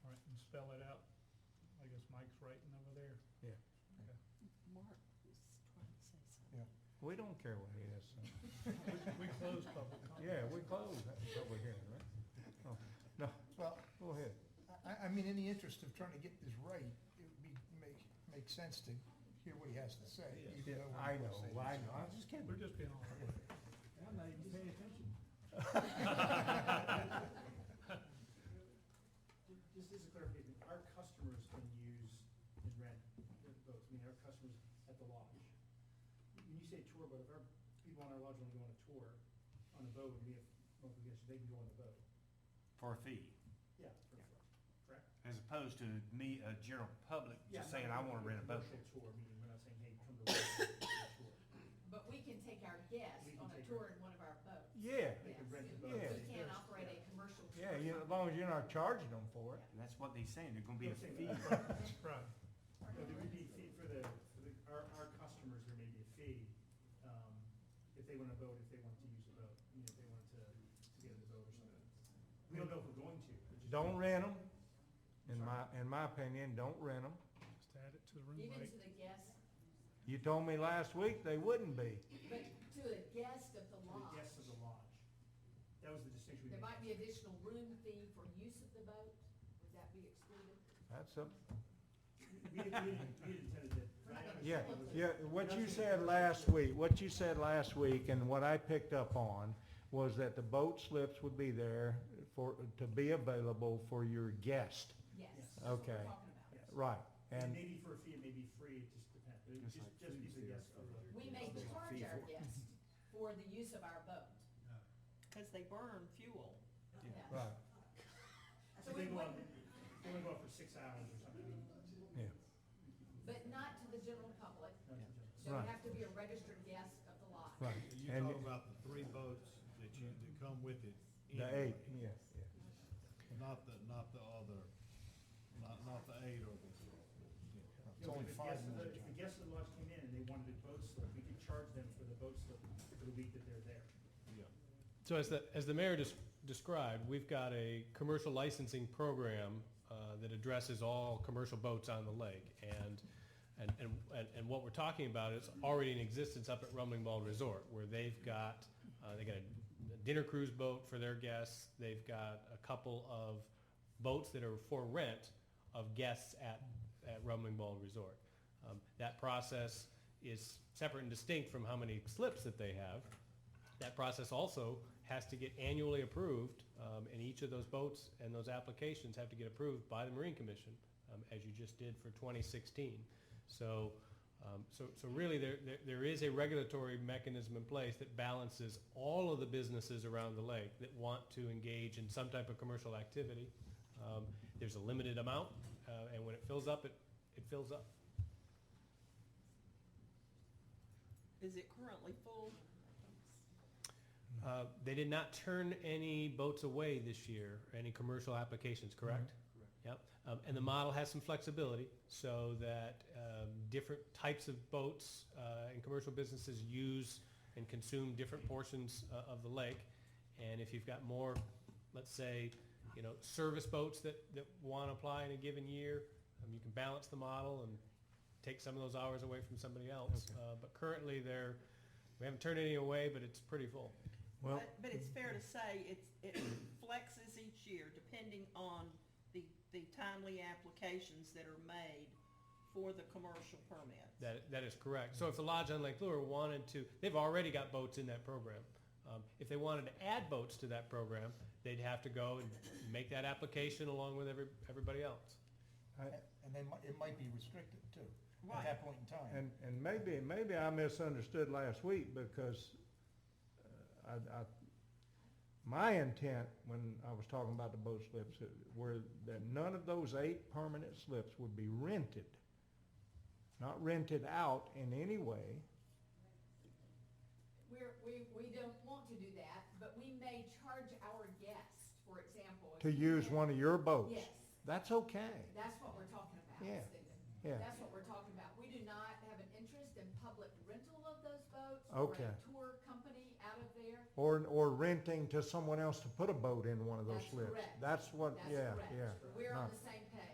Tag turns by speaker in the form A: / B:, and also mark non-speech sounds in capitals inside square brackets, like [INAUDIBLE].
A: I guess Mike's writing over there.
B: Yeah.
A: Okay.
C: Mark was trying to say
B: Yeah.
C: something.
B: We don't care what he has. to say.
A: We close public comment.
B: Yeah, we close that public hearing, right? No, No,
D: Well,
B: go ahead.
D: I, I mean, in the interest of trying to get this right, it would be, make, make sense to hear what he has to say. even though
B: Yeah,
D: we're
B: I
D: not
B: know,
D: saying
B: [LAUGHS] I
D: it's-
B: know, I was just
A: We're
B: kidding.
A: just being all.
E: I'm not even paying attention.
F: Just as a clarification, our customers can use and rent their boats, I mean, our customers at the lodge. When you say tour boat, if our people on our lodge want to go on a tour on a boat, and we have monthly guests, they can go on the boat.
G: [LAUGHS] for a fee,
F: Yeah. for- for- Correct?
G: as opposed to me, a general public,
F: Yeah,
G: just saying, I wanna rent a boat.
F: Commercial tour, meaning we're not saying, hey, come to the tour.
H: But we can take our guests
F: We can
H: on a
F: take
H: tour
F: our-
H: in one of our boats.
B: Yeah,
F: They can rent the boat.
H: Yes,
B: Yeah.
H: we can't operate a commercial tour.
B: yeah, you- as long as you're not charging them for it.
G: And that's what they saying, they're gonna be a fee.
A: Right.
F: No, there would be a fee for the, for the, our, our customers, there may be a fee, um, if they want to vote, if they want to use the vote, you know, if they want to, to get in the vote or something. We don't know if we're going to. but just-
B: [LAUGHS] Don't rent them, in my, in my opinion, don't rent them.
A: Just add it to the room,
H: Even
A: Mike.
H: to the guests,
B: You told me last week they wouldn't be.
H: but to a guest of the
F: To the
H: lodge.
F: guests of the lodge. That was the distinction we
H: There
F: made.
H: might be additional room fee for use of the boat. Would that be excluded?
B: That's a,
F: We had, we had- we had intended that. but I understand
B: Yeah,
F: it was-
B: yeah, what you
F: Nothing-
B: said last week, what you said last week and what I picked up on was that the boat slips would be there for, to be available for your guest.
H: Yes.
F: Yes.
H: that's what we're
B: Okay.
H: talking about.
F: Yes.
B: Right,
F: And
B: and,
F: maybe for a fee, it may be free, it just depends, but it
G: Just
F: just,
G: like
F: just be the
G: food,
F: guests of the.
H: We may
F: of the lodge.
H: charge our guests for the use of our boat.
C: Because they burn fuel.
H: Yeah.
B: right,
H: So
F: So
H: we
F: they go out,
H: wouldn't,
F: they only go out for six hours or something.
B: yeah,
H: but not to the general public.
F: Not to just-
H: So
B: Right.
H: you have to be a registered guest of the lodge.
B: right.
E: You're
B: And
E: talking about the three boats that you, that come with it.
B: The eight,
E: anyway,
B: yeah, yeah.
E: E. Not the, not the other, not, not the eight or the.
D: It's only
F: If the
D: five
F: guests of the-
D: minutes,
F: If
D: John.
F: the guests of the lodge came in and they wanted a boat slip, we could charge them for the boat slip for the week that they're there.
E: Yeah.
I: So as the, as the mayor just described, we've got a commercial licensing program uh, that addresses all commercial boats on the lake. And, and, and, and and what we're talking about is already in existence up at Rumbling Ball Resort, where they've got, uh, they got a dinner cruise boat for their guests. They've got a couple of boats that are for rent of guests at, at Rumbling Ball Resort. Um, That process is separate and distinct from how many slips that they have. That process also has to get annually approved, um, and each of those boats and those applications have to get approved by the Marine Commission, um, as you just did for 2016. So, um, so, so really, there, there there is a regulatory mechanism in place that balances all of the businesses around the lake that want to engage in some type of commercial activity. Um, There's a limited amount, uh, and when it fills up, it, it fills up.
C: Is it currently full?
I: Uh, They did not turn any boats away this year, any commercial applications, correct? Correct. Yep, Um, and the model has some flexibility so that um, different types of boats uh, and commercial businesses use and consume different portions uh, of the lake. And if you've got more, let's say, you know, service boats that, that want to apply in a given year, um, you can balance the model and take some of those hours away from somebody else. Uh, But currently, they're, we haven't turned any away, but it's pretty full.
B: Well,
C: But, but it's fair to say it's, it flexes each year depending on the, the timely applications that are made for the commercial permits.
I: That, that is correct. So if the lodge on Lake Lure wanted to, they've already got boats in that program. Um, if they wanted to add boats to that program, they'd have to go and make that application along with every, everybody else.
B: I-
D: And then mi- it might be restricted too, at
C: Right.
D: that point in time.
B: and, and maybe, maybe I misunderstood last week because uh, I, I, my intent when I was talking about the boat slips were that none of those eight permanent slips would be rented. Not rented out in any way.
H: We're, we, we don't want to do that, but we may charge our guests, for example. if
B: to
H: you
B: use
H: rent-
B: one of your boats.
H: Yes.
B: That's okay.
H: That's what we're talking about,
B: Yeah,
H: Stephen.
B: yeah.
H: That's what we're talking about. We do not have an interest in public rental of those boats. Or
B: Okay.
H: a tour company out of there.
B: Or, or renting to someone else to put a boat in one of those
H: That's
B: slips.
H: correct.
B: That's what,
H: That's
B: yeah,
H: correct.
B: yeah.
H: We're on
B: No.
H: the same